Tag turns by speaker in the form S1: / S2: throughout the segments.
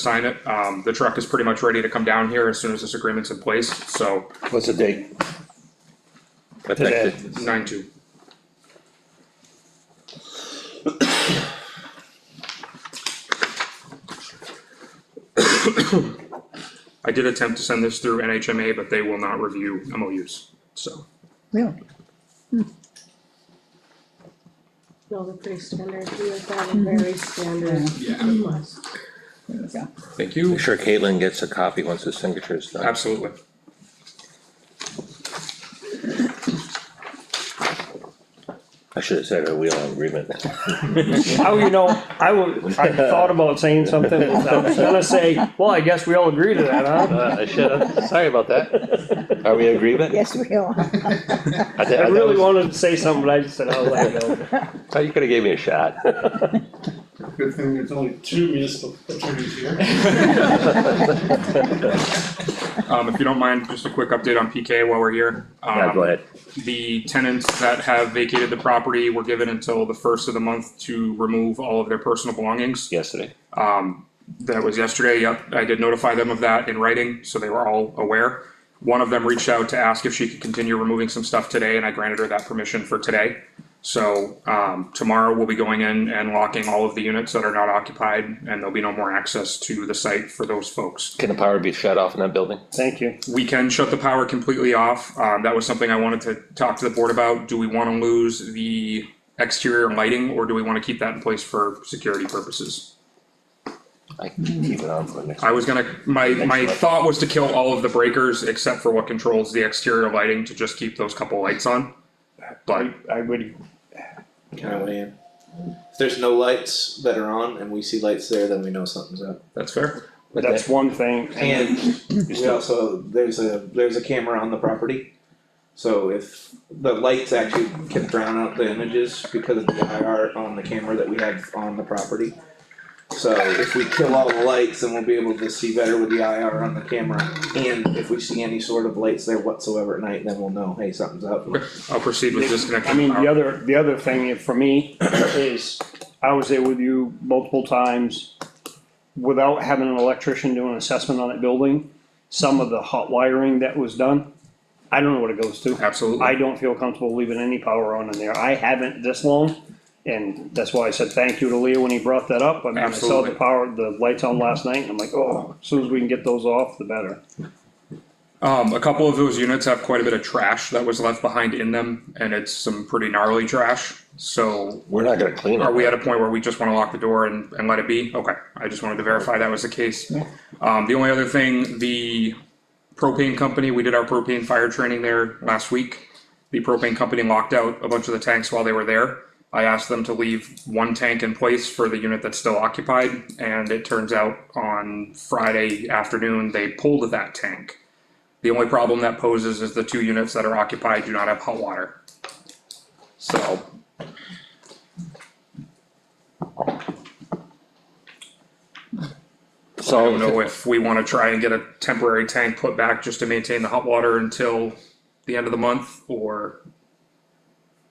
S1: sign it. Um, the truck is pretty much ready to come down here as soon as this agreement's in place, so
S2: What's the date?
S3: Effective.
S1: nine two. I did attempt to send this through NHMA, but they will not review MOUs, so.
S2: Yeah.
S4: No, they're pretty standard, we have got a very standard.
S1: Yeah.
S4: request.
S1: Thank you.
S3: Make sure Caitlin gets a copy once the signature is done.
S1: Absolutely.
S3: I should have said a wheel on agreement.
S5: Oh, you know, I would, I thought about saying something, I was gonna say, well, I guess we all agree to that, huh?
S6: Uh, I should have, sorry about that.
S3: Are we in agreement?
S2: Yes, we are.
S6: I thi-
S5: I
S6: I
S5: really
S6: was-
S5: wanted to say something, but I just said, I'll let it go.
S3: Oh, you could have gave me a shot.
S7: Good thing there's only two municipal attorneys here.
S1: Um, if you don't mind, just a quick update on PK while we're here.
S3: Yeah,
S1: Um,
S3: go ahead.
S1: The tenants that have vacated the property were given until the first of the month to remove all of their personal belongings.
S3: Yesterday.
S1: Um, that was yesterday, yep, I did notify them of that in writing, so they were all aware. One of them reached out to ask if she could continue removing some stuff today, and I granted her that permission for today. So, um, tomorrow we'll be going in and locking all of the units that are not occupied, and there'll be no more access to the site for those folks.
S3: Can the power be shut off in that building?
S5: Thank you.
S1: We can shut the power completely off. Um, that was something I wanted to talk to the board about. Do we wanna lose the exterior lighting or do we wanna keep that in place for security purposes?
S3: I can keep it on for the next.
S1: I was gonna, my, my thought was to kill all of the breakers except for what controls the exterior lighting to just keep those couple lights on. But
S5: I would,
S8: Can I weigh in? If there's no lights that are on and we see lights there, then we know something's up.
S1: that's fair.
S3: But
S5: that's one thing,
S8: And we
S3: still-
S8: also, there's a, there's a camera on the property. So if the lights actually can drown out the images because of the IR on the camera that we have on the property. So if we kill all the lights, then we'll be able to see better with the IR on the camera. And if we see any sort of lights there whatsoever at night, then we'll know, hey, something's up.
S1: Okay, I'll proceed with disconnecting.
S5: I mean, the
S1: power.
S5: other, the other thing for me is, I was there with you multiple times. Without having an electrician do an assessment on that building, some of the hot wiring that was done, I don't know what it goes to. I
S1: Absolutely.
S5: don't feel comfortable leaving any power on in there. I haven't this long. And that's why I said thank you to Leo when he brought that up. I mean, I saw
S1: Absolutely.
S5: the power, the lights on last night and I'm like, oh, as soon as we can get those off, the better.
S1: Um, a couple of those units have quite a bit of trash that was left behind in them and it's some pretty gnarly trash. So
S3: We're not gonna clean it.
S1: Are we at a point where we just wanna lock the door and, and let it be? Okay, I just wanted to verify that was the case. Um, the only other thing, the propane company, we did our propane fire training there last week. The propane company locked out a bunch of the tanks while they were there. I asked them to leave one tank in place for the unit that's still occupied, and it turns out on Friday afternoon, they pulled that tank. The only problem that poses is the two units that are occupied do not have hot water. So, I don't know
S3: So,
S1: if we wanna try and get a temporary tank put back just to maintain the hot water until the end of the month, or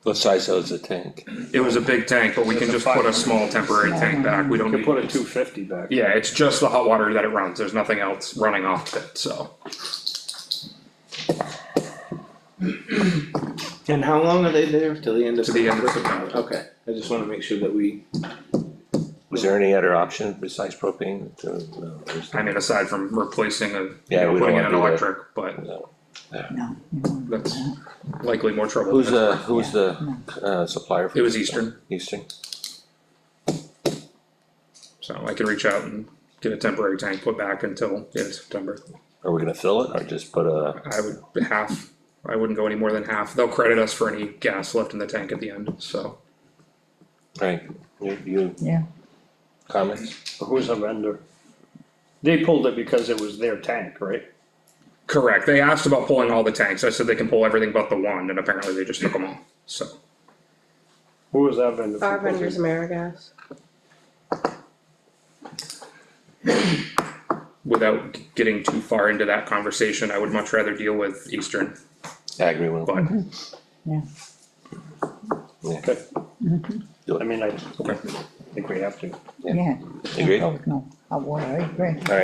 S3: what size is the tank?
S1: it was a big tank, but we can just put a small temporary tank back, we don't
S5: You
S1: need.
S5: put a two fifty back.
S1: Yeah, it's just the hot water that it runs, there's nothing else running off of it, so.
S8: And how long are they there? Till the end of
S1: To the end of September.
S8: Okay, I just wanna make sure that we.
S3: Was there any other option besides propane? to- no, there's-
S1: I mean, aside from replacing a,
S3: Yeah, we don't
S1: putting in
S3: wanna
S1: an
S3: do that.
S1: electric, but
S3: no.
S1: that's likely more trouble.
S3: Who's
S1: than it's
S3: the,
S1: worth.
S3: who's the uh, supplier? for
S1: It was
S3: this?
S1: Eastern,
S3: Eastern.
S1: so I can reach out and get a temporary tank put back until the end of September.
S3: Are we gonna fill it or just put a,
S1: I would half, I wouldn't go any more than half. They'll credit us for any gas left in the tank at the end, so.
S3: right, you, you?
S2: Yeah.
S3: Comments?
S5: Who's a vendor? They pulled it because it was their tank, right?
S1: Correct. They asked about pulling all the tanks. I said they can pull everything but the one, and apparently they just took them all, so.
S5: Who was that vendor? for
S4: Our vendors,
S5: propane?
S4: AmeriGas,
S1: Without getting too far into that conversation, I would much rather deal with Eastern,
S3: I agree with
S1: but,
S5: Okay. I mean, I
S1: okay.
S5: think we have to.
S2: Yeah,
S3: Agreed?
S2: oh, no, I won't, I agree.